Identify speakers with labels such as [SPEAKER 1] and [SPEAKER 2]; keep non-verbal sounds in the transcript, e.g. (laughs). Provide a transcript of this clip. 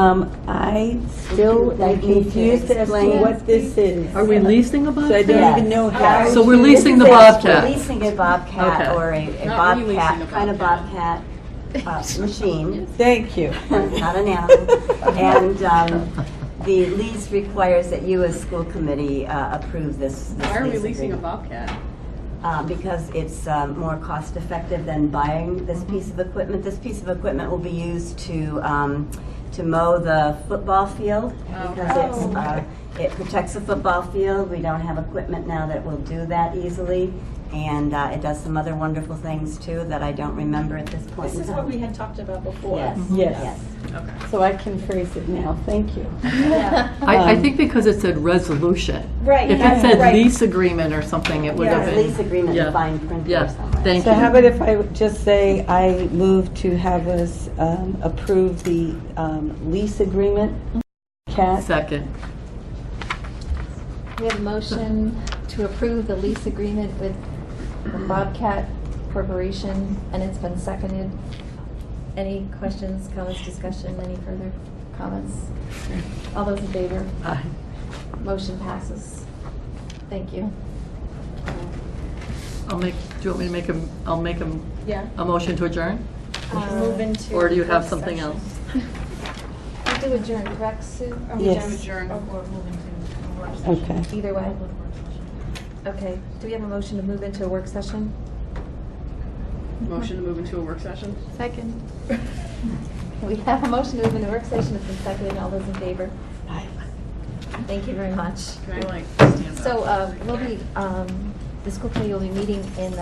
[SPEAKER 1] Um, I still am confused as to what this is.
[SPEAKER 2] Are we leasing a
[SPEAKER 1] So I
[SPEAKER 2] Bobcat?
[SPEAKER 1] don't even know how.
[SPEAKER 2] So we're leasing the Bobcat.
[SPEAKER 3] Leasing a Bobcat
[SPEAKER 2] Okay.
[SPEAKER 3] or a a
[SPEAKER 4] Not releasing a
[SPEAKER 3] Bobcat, kind of Bobcat
[SPEAKER 4] (laughs)
[SPEAKER 3] uh, machine,
[SPEAKER 1] Thank you.
[SPEAKER 3] not an animal. And um, the lease requires that you as school committee uh, approve this. this
[SPEAKER 4] Why are we
[SPEAKER 3] lease
[SPEAKER 4] leasing a
[SPEAKER 3] agreement.
[SPEAKER 4] Bobcat?
[SPEAKER 3] Uh, Because it's um, more cost effective than buying this piece of equipment. This piece of equipment will be used to, um, to mow the football field.
[SPEAKER 4] Oh.
[SPEAKER 3] Because it's, uh, it protects the football field. We don't have equipment now that will do that easily. And uh, it does some other wonderful things too that I don't remember at this point.
[SPEAKER 5] This is what we had talked about before.
[SPEAKER 3] Yes,
[SPEAKER 1] Yes.
[SPEAKER 3] yes.
[SPEAKER 1] So I can phrase it now, thank you.
[SPEAKER 2] (laughs) I, I
[SPEAKER 1] Um,
[SPEAKER 2] think because it said resolution.
[SPEAKER 5] Right.
[SPEAKER 2] If it said
[SPEAKER 5] right.
[SPEAKER 2] lease agreement or something, it would have
[SPEAKER 3] Yes, lease
[SPEAKER 2] been,
[SPEAKER 3] agreement,
[SPEAKER 2] yeah.
[SPEAKER 3] and fine print
[SPEAKER 2] Yeah.
[SPEAKER 3] or somewhere.
[SPEAKER 2] Thank
[SPEAKER 1] So
[SPEAKER 2] you.
[SPEAKER 1] how about if I would just say I move to have us um, approve the um, lease agreement?
[SPEAKER 2] Mm-hmm.
[SPEAKER 1] Cat,
[SPEAKER 2] second.
[SPEAKER 6] We have a motion to approve the lease agreement with the Bobcat Corporation, and it's been seconded. Any questions, comments, discussion, any further comments? All those in favor?
[SPEAKER 2] Aye.
[SPEAKER 6] Motion passes. Thank you.
[SPEAKER 2] I'll make, do you want me to make a, I'll make a,
[SPEAKER 5] Yeah.
[SPEAKER 2] a motion to adjourn?
[SPEAKER 6] Move
[SPEAKER 5] into.
[SPEAKER 2] Or do you have something else?
[SPEAKER 6] We do adjourn, correct, Sue?
[SPEAKER 7] Are we done
[SPEAKER 1] Yes.
[SPEAKER 7] with journal
[SPEAKER 6] Oh,
[SPEAKER 7] or moving to work session?
[SPEAKER 1] okay.
[SPEAKER 6] Either way. Okay, do we have a motion to move into a work session?
[SPEAKER 4] Motion to move into a work session?
[SPEAKER 6] Second. (laughs) We have a motion to move into work session, it's been seconded, all those in favor?
[SPEAKER 1] Aye.
[SPEAKER 6] Thank you very much.
[SPEAKER 4] Can I like stand up?
[SPEAKER 6] So, uh, we'll be, um, the school committee will be meeting in the